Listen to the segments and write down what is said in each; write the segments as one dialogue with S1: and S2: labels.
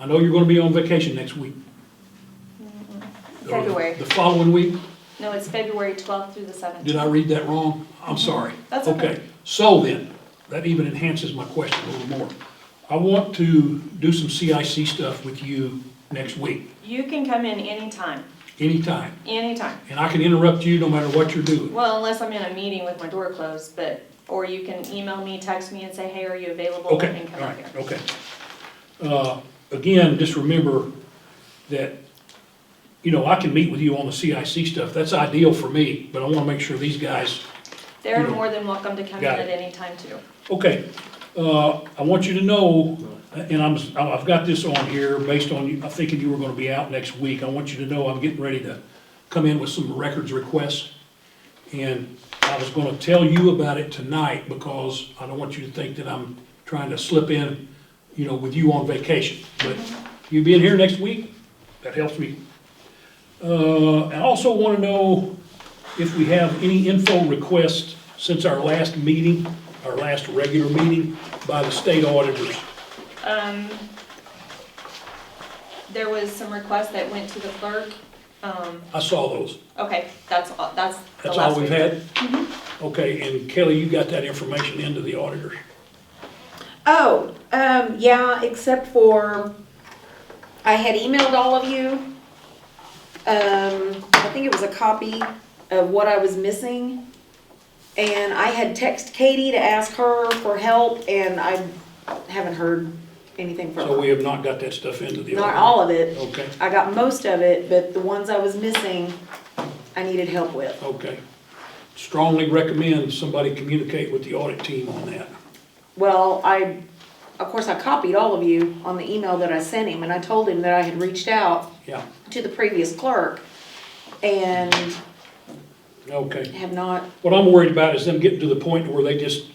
S1: I know you're gonna be on vacation next week. Or
S2: February.
S1: The following week,
S2: No, it's February twelfth through the seventeenth.
S1: did I read that wrong? I'm sorry.
S2: Mm-hmm. That's okay.
S1: So then, that even enhances my question a little more. I want to do some CIC stuff with you next week,
S2: You can come in anytime,
S1: anytime,
S2: anytime.
S1: and I can interrupt you no matter what you're doing.
S2: Well, unless I'm in a meeting with my door closed, but, or you can email me, text me and say, hey, are you available?
S1: Okay,
S2: And come
S1: all
S2: up
S1: right,
S2: here.
S1: okay. Uh, Again, just remember that, you know, I can meet with you on the CIC stuff, that's ideal for me, but I wanna make sure these guys,
S2: They're
S1: You know.
S2: more than welcome to come in
S1: Got
S2: at
S1: it.
S2: any time too.
S1: okay, uh, I want you to know, and I'm, I've got this on here based on, you- I'm thinking you were gonna be out next week, I want you to know I'm getting ready to come in with some records requests. And I was gonna tell you about it tonight because I don't want you to think that I'm trying to slip in, you know, with you on vacation. But you being here next week, that helps me. Uh, I also wanna know if we have any info requests since our last meeting, our last regular meeting by the state auditors.
S2: Um, there was some requests that went to the clerk. Um,
S1: I saw those.
S2: okay, that's, all- that's the
S1: That's all
S2: last
S1: we've
S2: we've
S1: had?
S3: Mm-hmm.
S1: Okay, and Kelly, you got that information into the auditors?
S3: Oh, um, yeah, except for, I had emailed all of you, um, I think it was a copy of what I was missing. And I had text Katie to ask her for help, and I haven't heard anything from
S1: So
S3: her.
S1: we have not got that stuff into the auditors?
S3: Not all of it,
S1: Okay,
S3: I got most of it, but the ones I was missing, I needed help with.
S1: okay. Strongly recommend somebody communicate with the audit team on that.
S3: Well, I, of course, I copied all of you on the email that I sent him, and I told him that I had reached out
S1: Yeah,
S3: to the previous clerk and
S1: okay.
S3: have not,
S1: What I'm worried about is them getting to the point where they just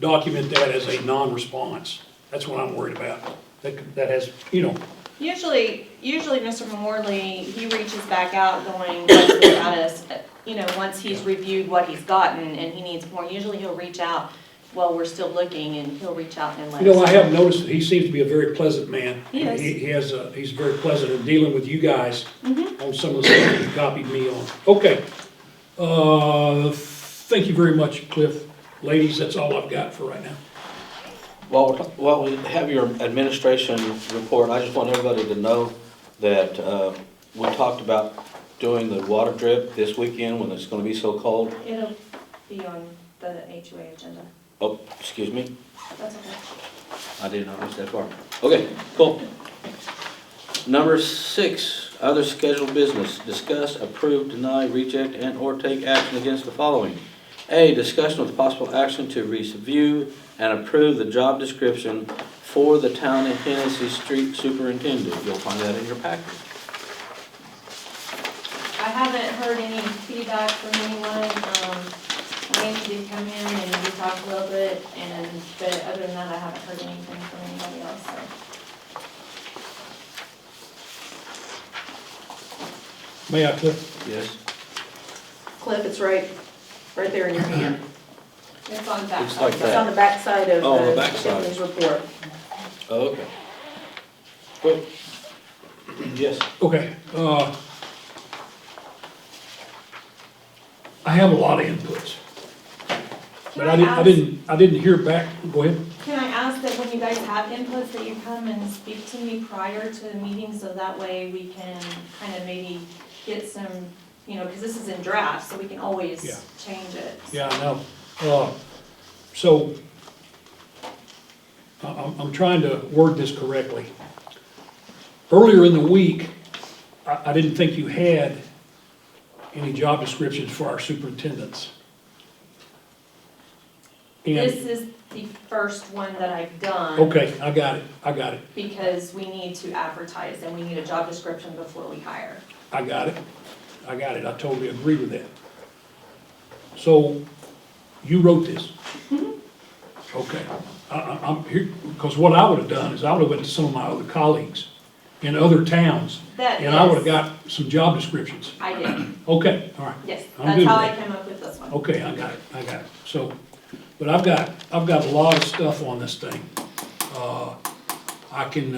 S1: document that as a non-response. That's what I'm worried about. That, could- that has, you know,
S2: Usually, usually Mr. Morley, he reaches back out going, what's the status? You know, once he's reviewed what he's gotten and he needs more, usually he'll reach out, well, we're still looking, and he'll reach out and let us.
S1: You know, I have noticed that he seems to be a very pleasant man.
S2: He is.
S1: He has, a- he's very pleasant in dealing with you guys
S2: Mm-hmm.
S1: on some of the stuff you copied me on. Okay. Uh, Thank you very much, Cliff. Ladies, that's all I've got for right now.
S4: While, while we have your administration report, I just want everybody to know that uh, we talked about doing the water drip this weekend when it's gonna be so cold.
S2: It'll be on the HOA agenda.
S4: Oh, excuse me,
S2: That's okay.
S4: I did not reach that far. Okay, cool. Number six, other scheduled business, discuss, approve, deny, reject, and/or take action against the following. A, discussion with possible action to review and approve the job description for the town of Hennessy Street Superintendent. You'll find that in your packet.
S2: I haven't heard any feedback from anyone, um, Wayne did come in and we talked a little bit, and, but other than that, I haven't heard anything from anybody else, so.
S1: May I, Cliff?
S4: Yes.
S3: Cliff, it's right, right there in your hand.
S2: It's on the back.
S4: It's like
S3: It's on the backside of
S4: Oh, the
S3: the
S4: backside.
S3: Tiffany's report.
S4: Okay. Good. Yes.
S1: Okay. uh, I have a lot of inputs, but I didn't, I didn't, I didn't hear back. Go ahead.
S2: Can I ask that when you guys have inputs, that you come and speak to me prior to the meeting, so that way we can kind of maybe get some, you know, because this is in draft, so we can always
S1: Yeah.
S2: change it.
S1: Yeah, I know. Uh, So, I- I'm, I'm trying to word this correctly. Earlier in the week, I, I didn't think you had any job descriptions for our superintendents. And,
S2: This is the first one that I've done.
S1: okay, I got it, I got it,
S2: Because we need to advertise and we need a job description before we hire.
S1: I got it, I got it, I totally agree with that. So, you wrote this?
S2: Mm-hmm.
S1: Okay, I, I, I'm here, because what I would have done is I would have went to some of my other colleagues in other towns,
S2: That
S1: and I would have
S2: is-
S1: got some job descriptions.
S2: I did,
S1: Okay, all right.
S2: yes.
S1: I'm
S2: That's
S1: good
S2: how
S1: with
S2: I
S1: that.
S2: came up with this one.
S1: Okay, I got it, I got it. So, but I've got, I've got a lot of stuff on this thing. Uh, I can